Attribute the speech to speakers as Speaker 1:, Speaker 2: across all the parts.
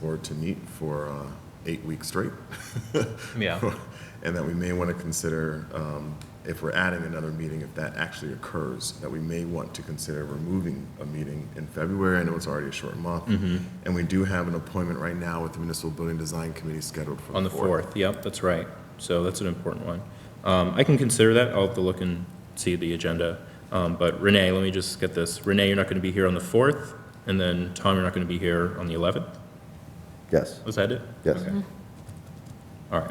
Speaker 1: board to meet for uh, eight weeks straight.
Speaker 2: Yeah.
Speaker 1: And that we may want to consider, um, if we're adding another meeting, if that actually occurs, that we may want to consider removing a meeting in February. I know it's already a short month.
Speaker 2: Mm-hmm.
Speaker 1: And we do have an appointment right now with the Municipal Building Design Committee scheduled for
Speaker 2: On the 4th, yep, that's right. So that's an important one. Um, I can consider that, I'll have to look and see the agenda. Um, But Renee, let me just get this. Renee, you're not going to be here on the 4th, and then Tom, you're not going to be here on the 11th?
Speaker 3: Yes,
Speaker 2: Was that it?
Speaker 3: yes.
Speaker 2: All right,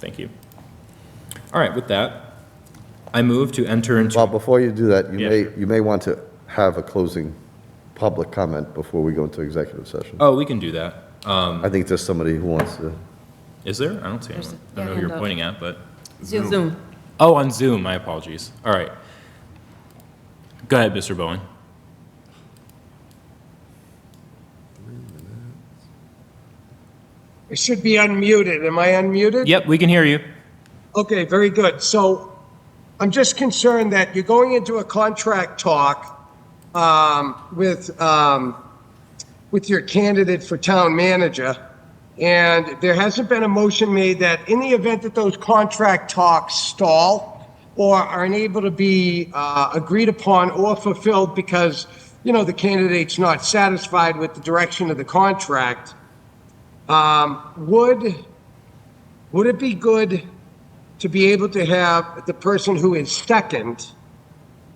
Speaker 2: thank you. All right, with that, I move to enter into.
Speaker 3: Well, before you do that, you
Speaker 2: Yeah,
Speaker 3: may,
Speaker 2: sure.
Speaker 3: you may want to have a closing public comment before we go into executive session.
Speaker 2: Oh, we can do that. Oh.
Speaker 3: I think there's somebody who wants to,
Speaker 2: Is there? I don't see anyone. I don't know who
Speaker 4: yeah,
Speaker 2: you're
Speaker 4: hand up.
Speaker 2: pointing at, but,
Speaker 4: Zoom.
Speaker 2: oh, on Zoom, my apologies. All right. Go ahead, Mr. Bowen.
Speaker 5: It should be unmuted. Am I unmuted?
Speaker 2: Yep, we can hear you.
Speaker 5: Okay, very good. So I'm just concerned that you're going into a contract talk um, with, um, with your candidate for town manager, and there hasn't been a motion made that in the event that those contract talks stall or are unable to be uh, agreed upon or fulfilled because, you know, the candidate's not satisfied with the direction of the contract, um, would, would it be good to be able to have the person who is second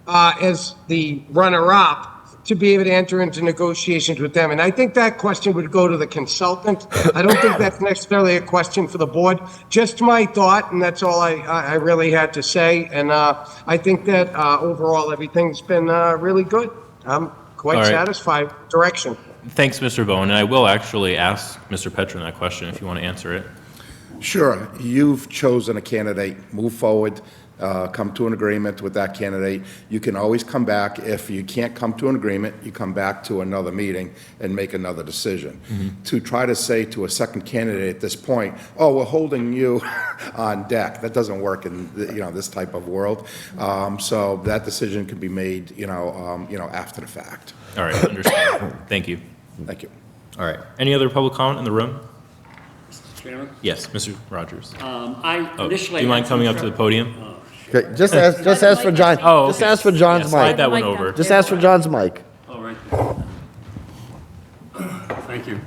Speaker 5: uh, as the runner-up to be able to enter into negotiations with them. And I think that question would go to the consultant. I don't think that's necessarily a question for the board. Just my thought, and that's all I, I I really had to say. And uh, I think that uh, overall, everything's been uh, really good. I'm
Speaker 2: All
Speaker 5: quite
Speaker 2: right.
Speaker 5: satisfied with direction.
Speaker 2: Thanks, Mr. Bowen, and I will actually ask Mr. Petron that question if you want to answer it.
Speaker 6: Sure. You've chosen a candidate. Move forward. Uh, come to an agreement with that candidate. You can always come back. If you can't come to an agreement, you come back to another meeting and make another decision. To try to say to a second candidate at this point, "Oh, we're holding you on deck," that doesn't work in the, you know this type of world. Um, so that decision can be made, you know, um, you know, after the fact.
Speaker 2: All right, understood. Thank you.
Speaker 6: Thank you.
Speaker 2: All right. Any other public comment in the room?
Speaker 7: Chairman,
Speaker 2: Yes, Mr. Rogers.
Speaker 7: um, I uh,
Speaker 2: Oh,
Speaker 7: initially.
Speaker 2: do you mind
Speaker 7: had
Speaker 2: coming
Speaker 7: some
Speaker 2: up to the
Speaker 7: trouble-
Speaker 2: podium?
Speaker 3: Okay, just ask, just ask for John,
Speaker 2: Oh,
Speaker 3: just
Speaker 2: okay.
Speaker 3: ask for
Speaker 2: Yeah,
Speaker 3: John's
Speaker 2: Slide
Speaker 3: mic.
Speaker 2: that one
Speaker 4: Mic down.
Speaker 2: over.
Speaker 3: Just ask for John's mic.
Speaker 7: Oh, right Oh, there. Thank you.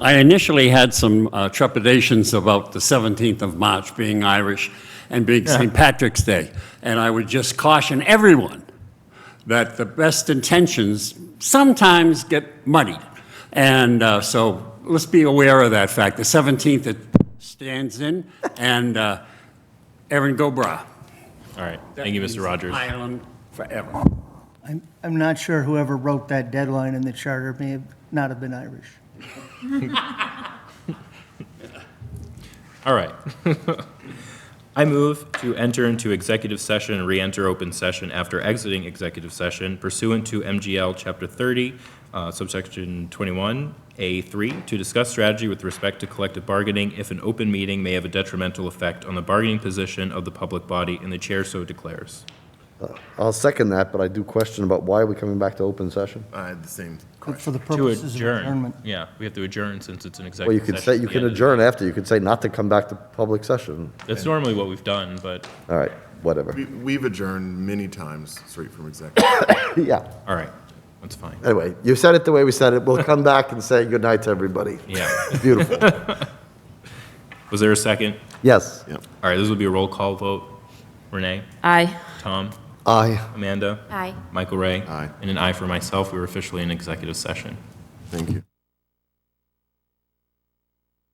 Speaker 7: I initially had some uh, trepidations about the 17th of March being Irish and being St. Patrick's Day. And I would just caution everyone that the best intentions sometimes get muddied. And uh, so let's be aware of that fact. The 17th it stands in, and uh, Erin Gobra.
Speaker 2: All right. Thank you,
Speaker 7: That means
Speaker 2: Mr. Rogers.
Speaker 7: Ireland forever.
Speaker 8: I'm, I'm not sure whoever wrote that deadline in the charter may have not have been Irish.
Speaker 2: All right. I move to enter into executive session and re-enter open session after exiting executive session pursuant to MGL Chapter 30, uh, subsection 21A3, to discuss strategy with respect to collective bargaining if an open meeting may have a detrimental effect on the bargaining position of the public body and the chair so declares.
Speaker 3: I'll second that, but I do question about why are we coming back to open session?
Speaker 1: I had the same
Speaker 8: But for the
Speaker 2: To
Speaker 8: purposes of adjournment.
Speaker 2: Yeah, we have to adjourn since it's an
Speaker 3: Well, you
Speaker 2: executive session.
Speaker 3: could say, you
Speaker 2: at the
Speaker 3: can
Speaker 2: end of the-
Speaker 3: adjourn after, you could say not to come back to public session.
Speaker 2: That's normally what we've done, but,
Speaker 3: All right, whatever.
Speaker 1: We- We've adjourned many times straight from executive.
Speaker 3: Yeah,
Speaker 2: all right, that's fine.
Speaker 3: anyway, you said it the way we said it, we'll come back and say goodnight to everybody.
Speaker 2: Yeah.
Speaker 3: Beautiful,
Speaker 2: Was there a second?
Speaker 3: yes.
Speaker 1: Yep.
Speaker 2: All right, this will be a roll call vote. Renee,
Speaker 4: Aye.
Speaker 2: Tom,
Speaker 3: Aye.
Speaker 2: Amanda,
Speaker 4: Aye.
Speaker 2: Michael Ray.
Speaker 1: Aye.
Speaker 2: And an aye for myself. We were officially in executive session.
Speaker 1: Thank you.